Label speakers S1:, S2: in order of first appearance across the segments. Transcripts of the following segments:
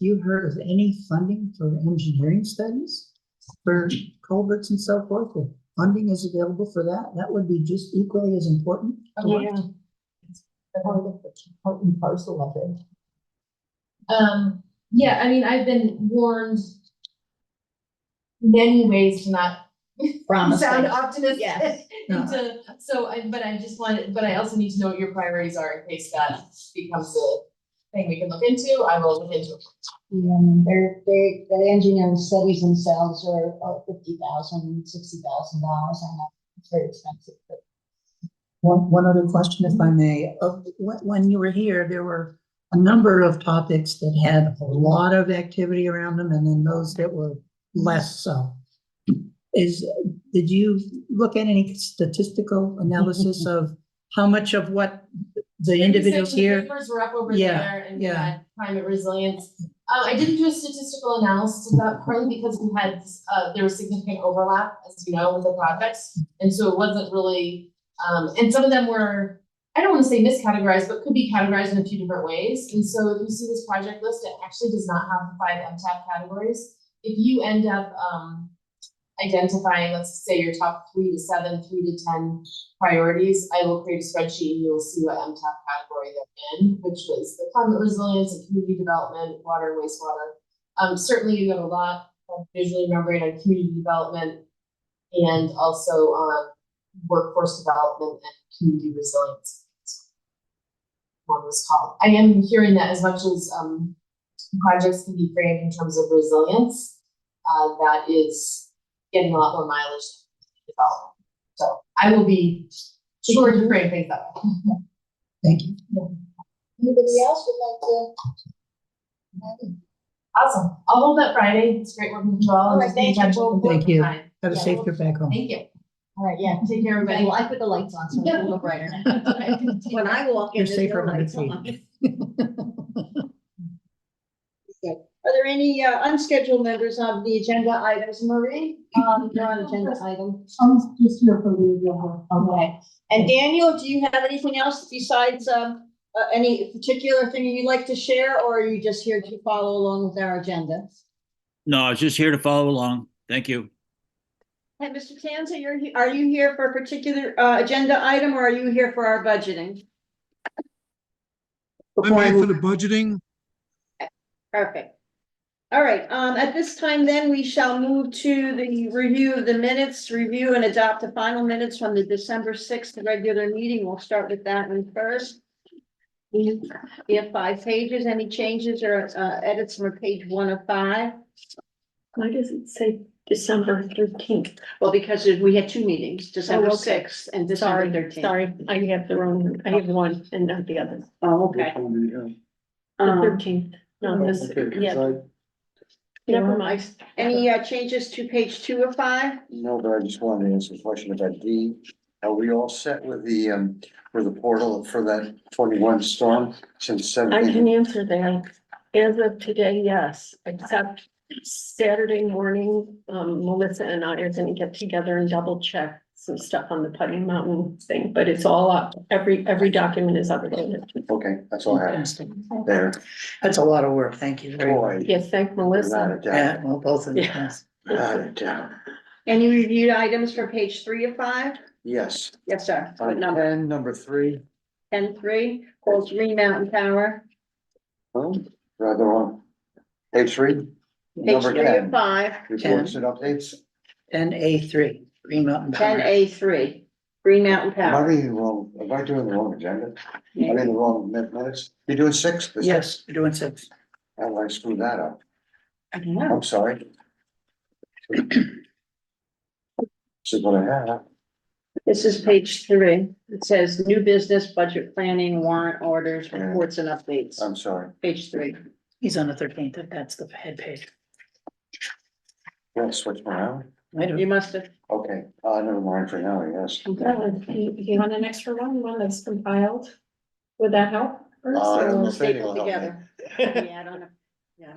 S1: you heard of any funding for engineering studies? For culverts and so forth, if funding is available for that, that would be just equally as important. to what-
S2: Yeah.
S3: Part of the, part and parcel of it.
S2: Um, yeah, I mean, I've been warned many ways to not sound optimistic.
S3: Yes.
S1: No.
S2: To, so I, but I just wanted, but I also need to know what your priorities are in case that becomes a thing we can look into. I will look into it.
S4: Yeah, and they're, they, the engineering studies themselves are about fifty thousand, sixty thousand dollars, I know, it's very expensive, but.
S1: One, one other question, if I may, of, when, when you were here, there were a number of topics that had a lot of activity around them and then those that were less so. Is, did you look at any statistical analysis of how much of what the individuals
S2: Research and
S1: here?
S2: Papers were up over
S1: Yeah,
S2: there and we
S1: yeah.
S2: had climate resilience. Uh, I didn't do a statistical analysis of that partly because we had, uh, there was significant overlap, as you know, with the projects. And so it wasn't really, um, and some of them were, I don't wanna say miscategorized, but could be categorized in a few different ways. And so if you see this project list, it actually does not have the five MTAP categories. If you end up, um, identifying, let's say your top three to seven, three to ten priorities, I will create a spreadsheet and you'll see what MTAP category they're in, which was the climate resilience and community development, water, and wastewater. Um, certainly you have a lot of visually remembering on community development and also on workforce development and community resilience. One was called. I am hearing that as much as, um, projects can be framed in terms of resilience, uh, that is getting a lot more mileage than development. So I will be sure to bring things up.
S1: Thank you.
S4: Anybody else would like to?
S2: Awesome. I'll hold that Friday. It's great working with you all.
S4: All right,
S2: Just
S4: thank you.
S2: intentional work
S1: Thank you.
S2: time.
S1: Have a safe trip back home.
S2: Thank you.
S4: All right, yeah.
S2: Take care,
S3: But
S2: everybody.
S3: I put the lights on, so it's a little brighter. When I walk in,
S1: You're
S3: there's
S1: safer
S3: no
S1: on
S3: lights
S1: the
S3: on.
S4: Are there any uh, unscheduled members of the agenda items, Marie? Um, non-agenda item.
S5: I'm just here for the example.
S4: Okay. And Daniel, do you have anything else besides, um, uh, any particular thing you'd like to share, or are you just here to follow along with our agenda?
S6: No, I was just here to follow along. Thank you.
S4: And Mr. Tanza, you're, he- are you here for a particular, uh, agenda item, or are you here for our budgeting?
S7: I'm here for the budgeting.
S4: Perfect. All right, um, at this time then, we shall move to the review of the minutes, review and adopt the final minutes from the December sixth regular meeting. We'll start with that one first. We we have five pages. Any changes or uh, edits from page one of five?
S8: Why does it say December thirteenth?
S4: Well, because we had two meetings, December
S8: okay.
S4: sixth and December
S8: Sorry,
S4: thirteenth.
S8: sorry, I have the wrong, I have one and not the other.
S4: Oh, okay.
S9: uh,
S8: The
S4: Um,
S8: thirteenth, no, this, yeah, never mind.
S4: Any uh, changes to page two of five?
S9: No, but I just wanted to answer a question about D. Are we all set with the, um, with the portal for that twenty-one storm since
S8: I
S9: seventeen?
S8: can answer that. As of today, yes, except Saturday morning, um, Melissa and I are gonna get together and double check some stuff on the Putney Mountain thing, but it's all up, every, every document is updated.
S9: Okay, that's all I have there.
S1: That's a lot of work. Thank you very much.
S9: Boy,
S8: Yes, thank
S9: without
S8: Melissa.
S9: a doubt,
S1: Yeah, well, both of you.
S8: Yeah.
S1: yes.
S9: without a doubt.
S4: Any reviewed items for page three of five?
S9: Yes, Um,
S4: Yes, sir. What
S9: on
S4: number?
S9: ten, number three,
S4: Ten three, Old Green Mountain Tower,
S9: oh, rather on. Page three,
S4: page
S9: number
S4: three of
S9: ten,
S4: five,
S9: reports and updates.
S1: Ten A three, Green Mountain
S4: ten
S1: Power.
S4: A three, Green Mountain
S9: Am I
S4: Tower.
S9: reading the wrong, am I doing the wrong agenda? Am I reading the wrong min- minutes? You're doing six? The six?
S1: Yes, we're doing six.
S9: How did I screw that up?
S4: I don't know.
S9: I'm Oh, sorry. This is what I have.
S4: This is page three. It says new business, budget planning, warrant orders, reports and updates,
S9: I'm sorry.
S4: page three.
S1: He's on the thirteenth. That's the head page.
S9: Did I switch around?
S1: Might have-
S4: You must have,
S9: Okay, uh, never mind for now, yes.
S8: Oh, You you want an extra one, one that's compiled? Would that help? Bruce,
S9: Uh, I
S8: or-
S9: don't know
S4: we'll
S9: if
S4: take it
S9: anyone helped me.
S4: together. Yeah, I don't know.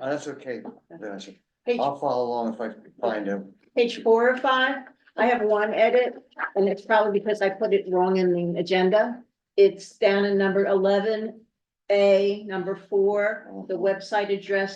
S9: Uh, That's okay. That's-
S4: Page
S9: I'll follow along if I can find him.
S4: page four or five, I have one edit, and it's probably because I put it wrong in the agenda.
S9: Uh-huh.
S4: It's down in number eleven A, number four, the website address